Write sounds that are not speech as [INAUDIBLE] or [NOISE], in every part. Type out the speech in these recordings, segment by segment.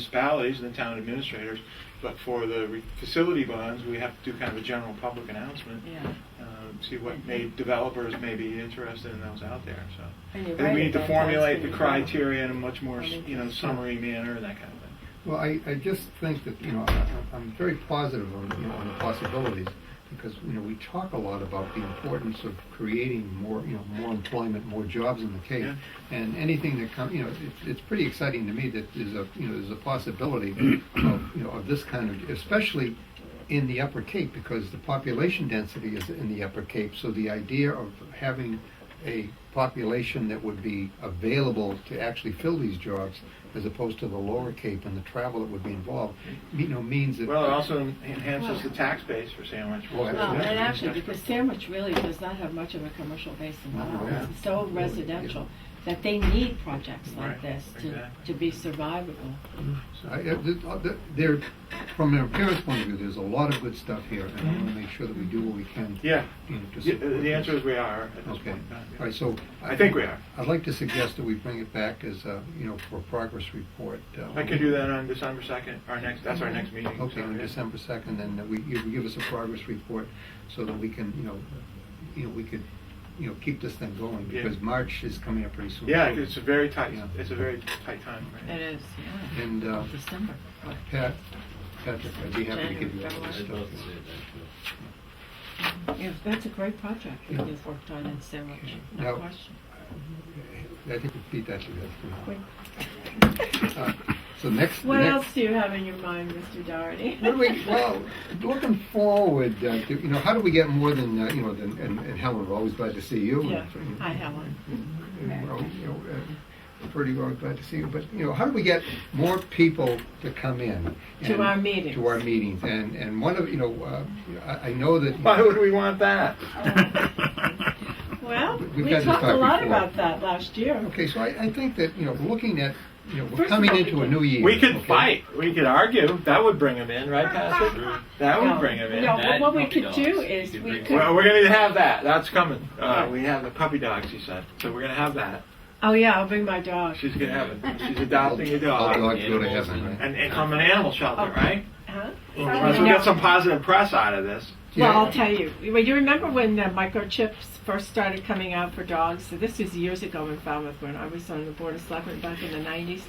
municipalities and the town administrators, but for the re- facility bonds, we have to do kind of a general public announcement. Yeah. um, See Mm-hmm. what may, developers may be interested in those out there, so. And you're I think right we need to about that, it's formulate the pretty broad. criteria in a much more, s- you know, summary manner and that kind of thing. Well, I, I just think that, you know, I, I'm very positive on, you know, on the possibilities because, you know, we talk a lot about the importance of creating more, you know, more employment, more jobs in the Cape. Yeah. And anything that comes, you know, it's, it's pretty exciting to me that there's a, you know, there's a possibility of, you know, of this kind of, especially in the Upper Cape because the population density is in the Upper Cape. So the idea of having a population that would be available to actually fill these jobs as opposed to the Lower Cape and the travel that would be involved, you know, means that. Well, it also enhances the tax base for Sandwich. Well, Well, Yeah. and actually, because Sandwich really does not have much of a commercial base at all. Oh, Yeah. It's so residential that they need projects like Right, this to, exactly. to be survivable. So I, uh, th- uh, th- there, from an appearance point of view, there's a lot of good stuff here and I want to make sure that we do what we can. Yeah, you know, to Y- support the answer this. is we are at this Mm-hmm. Okay, point. in time, yeah. all right, so. I think we are. I'd like to suggest that we bring it back as, a, you know, for a progress report. uh, I could do that on December 2nd, our next, that's our next meeting. Okay, so, on yeah. December 2nd, then that we, you give us a progress report so that we can, you know, you know, we could, you know, keep this thing going Yeah. because March is coming up pretty soon. Yeah, it's a very tight, Yeah. it's a very tight time. right? is, yeah. And uh, December. Pat, Patrick, I'd be happy to give you all this I'd stuff. love to see it, actually. Yeah, that's a great project Yeah. that you've worked on in Sandwich, Now- no question. I think we beat that to death. Quick. [LAUGHS] Uh, So next. the What next- else do you have in your mind, Mr. Doherty? What do we, well, looking forward, uh, to- you know, how do we get more than, uh, you know, than, and and Helen, we're always glad to see you. [LAUGHS] Yeah, hi Helen. And we're all, you know, uh, Pretty well glad to see you, but, you know, how do we get more people to come in? To and- our meetings. To our meetings, and, and one of, you know, uh, I, I know that. Why would we want that? [LAUGHS] Well, We've we had this talked a talk lot before. about that last year. Okay, so I, I think that, you know, looking at, you know, we're First of coming all, we into a can- new [LAUGHS] year. We could okay? fight, we could argue, that would bring them in, right, Patrick? That No, would bring them in. No, but That what we puppy could dogs. do You is could we bring- could, Well, we're gonna have that, that's coming. Uh, we have the puppy dogs, she said, so we're gonna have that. oh yeah, I'll bring my dog. She's gonna have it, she's All all adopting a dog. dogs go to heaven, right? And, and from an animal shelter, right? Oh. Huh? Well, So we got some positive press out of this. Well, Yeah. I'll tell you. Well, you remember when the microchips first started coming out for dogs? So this was years ago in Falmouth when I was on the board of selectmen back in the 90s.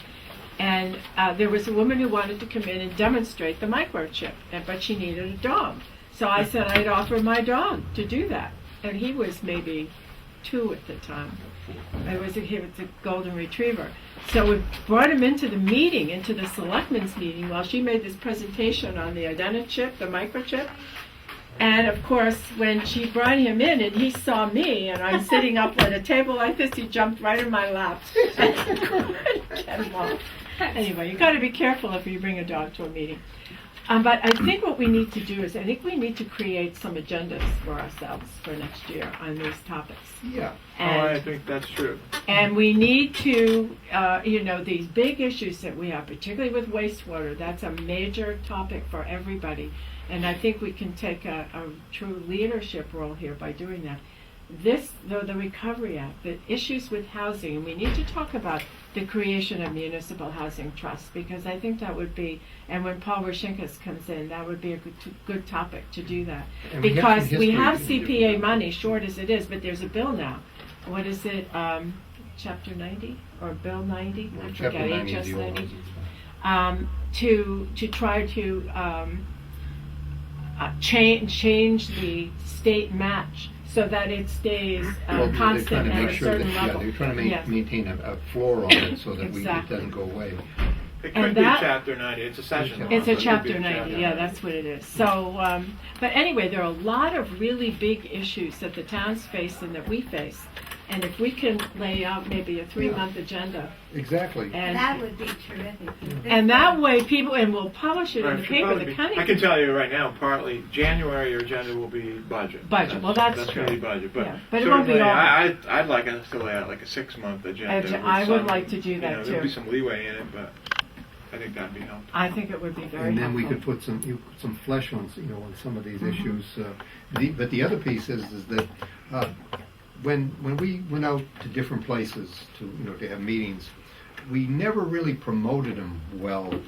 And uh, there was a woman who wanted to come in and demonstrate the microchip, and, but she needed a dog. So I said I'd offer my dog to do that. And he was maybe two at the time. It was a, he was a golden retriever. So we brought him into the meeting, into the selectmen's meeting, while she made this presentation on the identity chip, the microchip. And of course, when she brought him in and he saw me and I'm sitting up at a table like this, he jumped right in my lap. [LAUGHS] Get him off. anyway, you got to be careful if you bring a dog to a meeting. Um, but I think what we need to do is, I think we need to create some agendas for ourselves for next year on these topics. Yeah, Oh, I And, think that's true. and we need to, uh, you know, these big issues that we have, particularly with wastewater, that's a major topic for everybody. And I think we can take a, a true leadership role here by doing that. This, though, the Recovery Act, the issues with housing, and we need to talk about the creation of municipal housing trusts because I think that would be, and when Paul Rashinkas comes in, that would be a good, good topic to do that. And we have some Because we history have to do CPA that. money, short as it is, but there's a bill now. What is it, um, chapter ninety or bill ninety? I Chapter forget, 90 is HS the old ninety. one. Um, to, to try to, um, uh, change, change the state match so that it stays Well, uh, they're trying constant to at make a sure that, certain yeah, level. they're trying to ma- Yes. maintain a, a floor on it so that we, it Exactly. doesn't go away. It And could be that- chapter ninety, it's a session. It's a law, so it could be chapter ninety, chapter yeah, that's what it is. So, um, but anyway, there are a lot of really big issues that the towns face and that we face. And if we can lay out maybe a three-month agenda Exactly. and, That would be terrific. and that way people, and we'll publish it Right, in the should paper, probably the be- county. I can tell you right now, partly, January, your agenda will be budget. Budget, well, that's That's true. gonna be budget, but Yeah, but it won't be certainly, all- I, I'd- I'd like us to lay out like a six-month agenda. I'd- with I would some- like to do you that, know, There'd be too. some leeway in it, but I think that'd be helpful. I think it would be very And then we could helpful. Mm-hmm. put some, you, put some flesh on, you know, on some of these issues. uh, The, but the other piece is, is that, uh, when, when we went out to different places to, you know, to have meetings, we never really promoted them well